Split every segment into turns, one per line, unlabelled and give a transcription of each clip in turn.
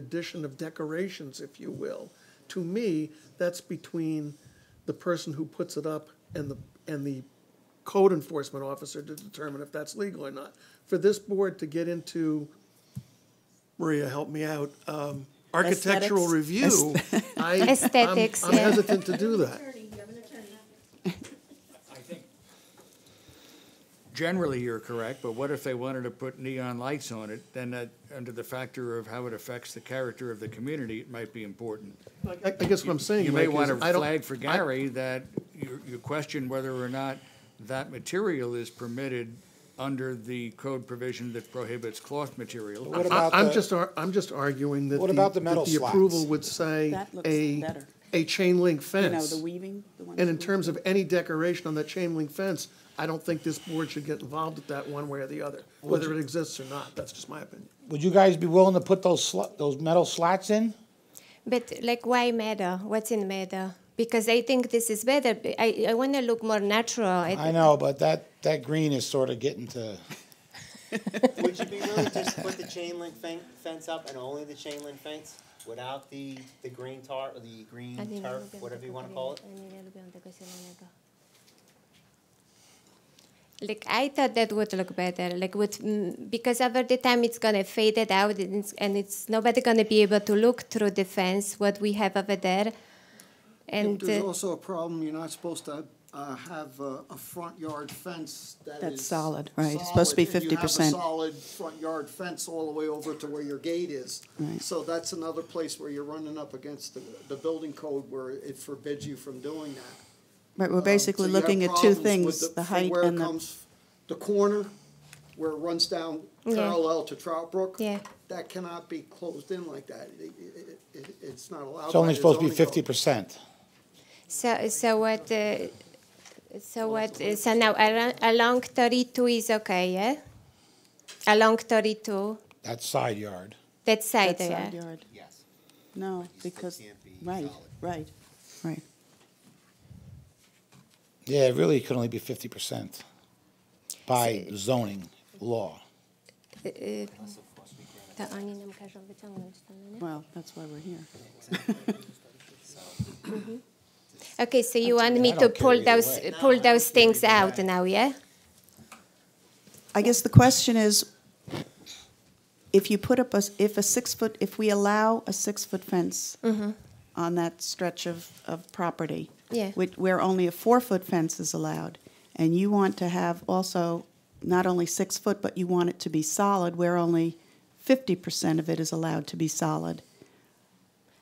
addition of decorations, if you will, to me, that's between the person who puts it up and the, and the code enforcement officer to determine if that's legal or not. For this board to get into, Maria, help me out, um, architectural review, I, I'm-
Aesthetics,
I'm
yeah.
hesitant to do that.
Generally, you're correct, but what if they wanted to put neon lights on it? Then that, under the factor of how it affects the character of the community, it might be important.
I, I guess what I'm saying,
You may
Mike,
want to
is I don't-
flag for
I-
Gary that you, you question whether or not that material is permitted under the code provision that prohibits cloth material.
What
I-
about
I'm
the-
just, ar- I'm just arguing that.
What about the
that
metal
The
slats?
approval would say
That looks
a,
better.
a chain link
You know,
fence.
the weaving, the ones.
And in
with-
terms of any decoration on that chain link fence, I don't think this board should get involved with that one way or the other, whether it exists or not, that's just my opinion.
Would you guys be willing to put those sl- those metal slats in?
But like, why matter? What's in matter? Because I think this is better. B- I, I want to look more natural.
I know, but that that green is sort of getting to.
Would you be willing to just put the chain link fen- fence up and only the chain link fence without the, the green tar, or the green turf, whatever you wanna call it?
Like I thought that would look better. Like with mm, because over the time it's gonna fade it out and it's, and it's nobody gonna be able to look through the fence what we have over there. And
There's
uh,
also a problem, you're not supposed to uh, have a a front yard fence that is.
That's solid, right, it's supposed to be
solid. If You
50%.
have a solid front yard fence all the way over to where your gate is.
Right.
So that's another place where you're running up against the, the building code where it forbids you from doing that.
Right, we're basically
Um, So you have
looking at two
problems with
things, the
from
height
where it
and the,
comes- The corner, where it runs down
Yeah.
parallel to Trout Brook.
Yeah.
That cannot be closed in like that, It- it- it- it's not allowed.
It's only
by the
supposed to be
zoning code.
fifty percent.
so so what uh, so what uh, so now along, along thirty two is okay, yeah. Along thirty two,
That's side yard.
that side,
that
there.
side yard.
Yes.
No, because,
can't be
right,
solid.
right, right.
Yeah, it really could only be fifty percent by zoning law.
Uh, To oni nam każą wyciągnąć to, no nie?
Well, that's why we're here.
Okay, so you want me
I
to
don't
pull
care either
those,
way.
pull those things out now, yeah?
I guess the question is, if you put up a, if a six-foot, if we allow a six-foot fence on that stretch of, of property,
Yeah.
which, where only a four-foot fence is allowed, and you want to have also not only six-foot, but you want it to be solid, where only fifty percent of it is allowed to be solid,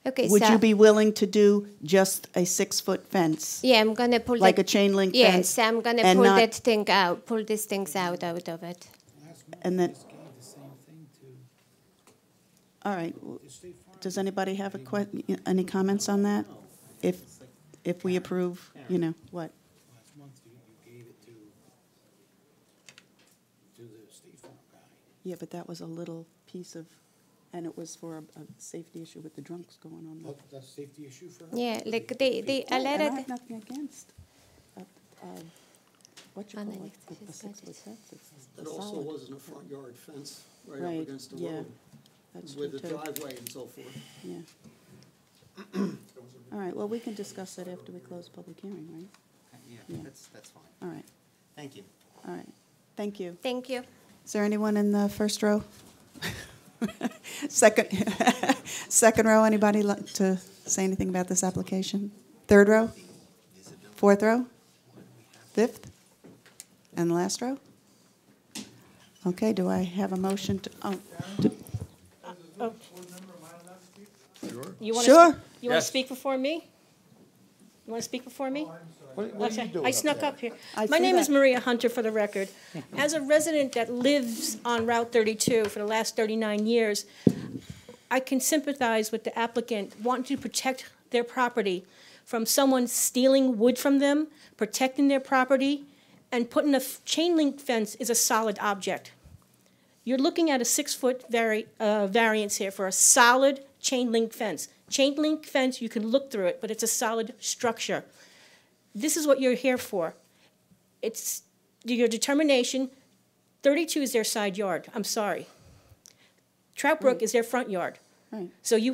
Okay,
would you
so,
be willing to do just a six-foot fence?
yeah, I'm gonna pull that.
Like a chain link
Yeah,
fence
so I'm gonna
and
pull
not-
that thing out, pull these things out, out of it.
And then. All right, w- does anybody have a que, any comments on that? If, if we approve, you know, what?
last month, you, you gave it to, to the State Farm guy.
Yeah, but that was a little piece of, and it was for a, a safety issue with the drunks going on. there.
That, that's a safety issue for her?
Yeah, like they, they
Yeah, And I
already,
have nothing against, uh, uh, what you
Oh,
call
no, you
it,
can
the- the
just go
six
to-
foot fence, it's
It
a
also
solid.
wasn't a front yard fence right
Right,
up against the
yeah,
road
That's true,
with a
too.
driveway and so forth.
Yeah. All right, well, we can discuss that after we close public hearing, right?
Yeah,
Yeah.
that's, that's fine.
All right,
Thank you.
all right. Thank you.
thank you.
Is there anyone in the first row? Second, second row, anybody like to say anything about this application? Third row? Fourth row? Fifth? And last row? Okay, do I have a motion to, oh,
You want
Sure.
To, you want to speak before me? You want to speak before me? okay. I snuck up here.
I
My
see
name is
that.
Maria Hunter, for the record. As a resident that lives on Route 32 for the last 39 years, I can sympathize with the applicant wanting to protect their property from someone stealing wood from them, protecting their property, and putting a f- chain link fence is a solid object. You're looking at a six-foot vari- uh, variance here for a solid chain link fence. Chain link fence, you can look through it, but it's a solid structure. This is what you're here for. It's your determination. 32 is their side yard. I'm sorry. Trout Brook is their front yard.
Right.
So you